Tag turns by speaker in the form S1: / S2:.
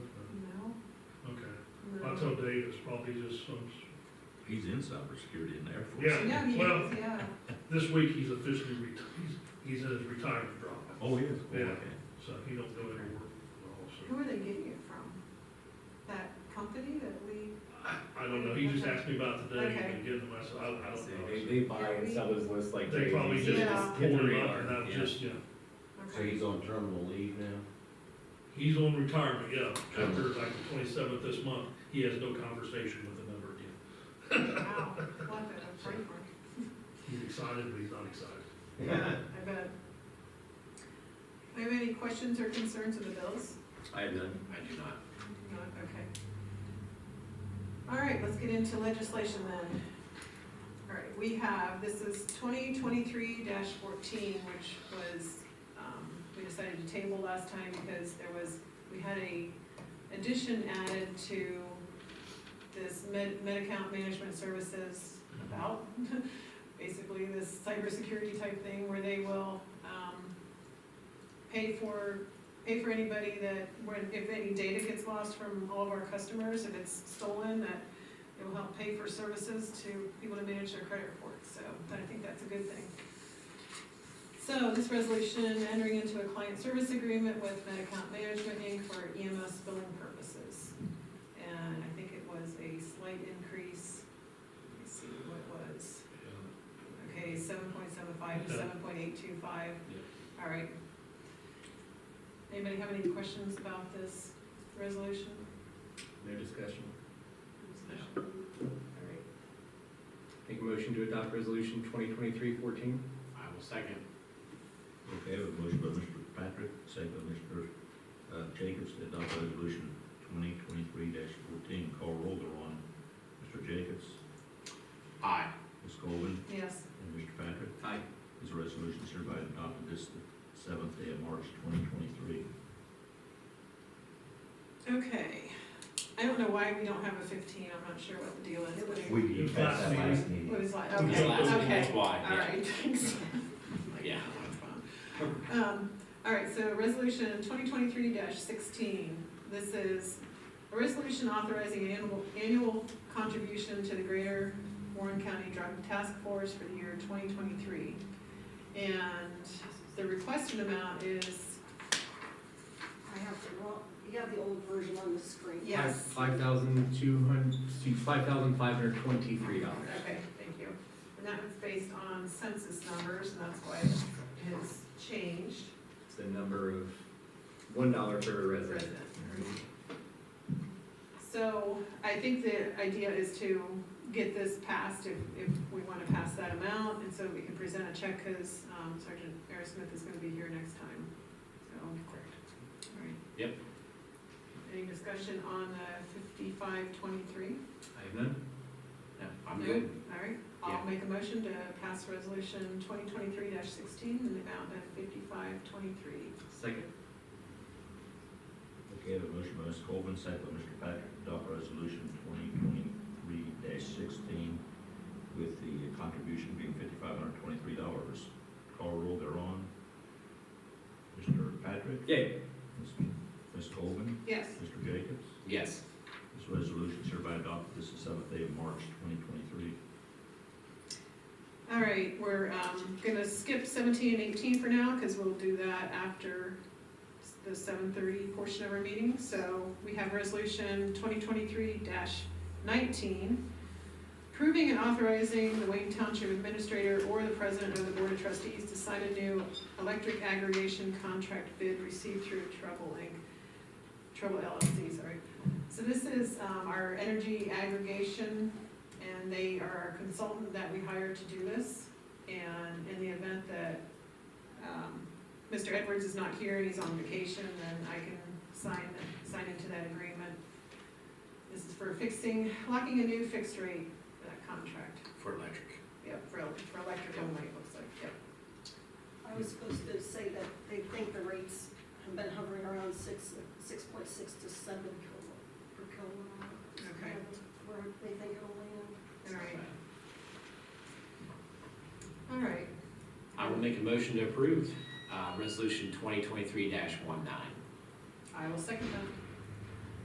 S1: So Dave is probably just some,
S2: He's in cybersecurity in the Air Force.
S1: Yeah.
S3: Yeah, he
S1: Well-
S3: is, yeah.
S1: this week he's officially retired, he's, he's in his retirement drop,
S2: Oh, he is? Oh,
S1: Yeah.
S2: okay.
S1: so he don't go anywhere at all, so.
S3: Who are they getting it from? That company that we,
S1: I, I don't know, he just asked me about today
S3: Okay.
S1: and getting myself, I, I
S4: Say,
S1: don't
S4: They,
S1: know.
S4: they buy and sell his list like.
S1: They probably
S4: crazy.
S1: just
S3: Yeah.
S1: pulled him up and
S4: Yeah.
S1: I just, yeah,
S5: So
S3: okay,
S5: he's on terminal leave now?
S1: he's on retirement, yeah,
S4: Oh.
S1: after like the twenty-seventh this month, he has no conversation with him ever again.
S3: wow, what a framework,
S1: He's excited, but he's not excited.
S3: I bet. Do you have any questions or concerns of the bills?
S4: I have none. I do not.
S3: No, okay. All right, let's get into legislation then. All right, we have, this is twenty twenty-three fourteen, which was, um, we decided to table last time because there was, we had a addition added to this med, account management services about, basically this cybersecurity type thing where they will, um, pay for pay for anybody that, when, if any data gets lost from all of our customers, if it's stolen, that it will help pay for services to people to manage their credit reports, so I think that's a good thing. So this resolution entering into a client service agreement with MedAccount Management Inc. for EMS billing purposes. And I think it was a slight increase, let me see what it was. Okay, seven point seven five to
S1: Okay.
S3: seven point eight two five.
S1: Yep.
S3: All right. Anybody have any questions about this resolution?
S4: No discussion.
S3: All right.
S4: Make a motion to adopt resolution 2023-14. I will second.
S2: Okay, we have a motion by Mr. Patrick, second by Mr. uh, Jacobs to adopt resolution twenty twenty-three fourteen. Call roll thereon. Mr. Jacobs,
S4: Aye.
S2: Ms. Colvin,
S3: Yes,
S2: and Mr. Patrick.
S4: Aye.
S2: This resolution is hereby adopted this seventh day of March twenty twenty-three.
S3: okay. I don't know why we don't have a fifteen, I'm not sure what the deal is. but it-
S5: We did pass that last
S3: What
S5: meeting.
S3: is like,
S1: was
S3: okay,
S1: last
S3: okay.
S4: why.
S3: All right, thanks.
S4: Yeah.
S3: Um, all right, so resolution twenty twenty-three sixteen, this is a resolution authorizing annual, annual contribution to the Greater Warren County Drug Task Force for the year twenty twenty-three. And the requested amount is,
S6: I have the wrong, you have the old version on the screen.
S3: yes,
S4: Five thousand two hundred, excuse, five thousand five hundred twenty-three dollars.
S3: okay, thank you. And that was based on census numbers, and that's why it has changed.
S4: It's the number of one dollar per resident.
S3: Resident. So I think the idea is to get this passed if, if we wanna pass that amount, and so we can present a check, cause um, Sergeant Aerosmith is gonna be here next time, so. Alright.
S4: Yep.
S3: Any discussion on the fifty-five twenty-three?
S4: I have none? No, I'm
S3: No?
S4: good.
S3: Alright,
S4: Yeah.
S3: I'll make a motion to pass resolution twenty twenty-three sixteen in the amount of fifty-five twenty-three.
S4: Second.
S2: Okay, I have a motion by Ms. Colvin, second by Mr. Patrick, to adopt resolution twenty twenty-three sixteen with the contribution being fifty-five hundred twenty-three dollars. Call roll thereon. Mr. Patrick,
S4: Yay.
S2: Ms. Ms. Colvin,
S3: Yes.
S2: Mr. Jacobs.
S4: Yes.
S2: This resolution is hereby adopted this is seventh day of March twenty twenty-three.
S3: All right, we're, um, gonna skip seventeen and eighteen for now, cause we'll do that after s- the seven thirty portion of our meeting, so we have resolution twenty twenty-three nineteen. Approving and authorizing the Wayne Township Administrator or the President of the Board of Trustees to sign a new electric aggregation contract bid received through Trouble Inc., Trouble LLC, sorry. So this is, um, our energy aggregation and they are a consultant that we hired to do this. And in the event that, um, Mr. Edwards is not here and he's on vacation, then I can sign, sign into that agreement. This is for fixing, locking a new fixed rate, uh, contract,
S4: For electric.
S3: yep, for, el- for electric only, it looks like, yep.
S6: I was supposed to say that they think the rates have been hovering around six, six point six to seven kilo, per kilowatt.
S3: Okay.
S6: Where they think it'll land.
S3: All right. All right,
S7: I will make a motion to approve, uh, resolution twenty twenty-three 19
S3: I will second that.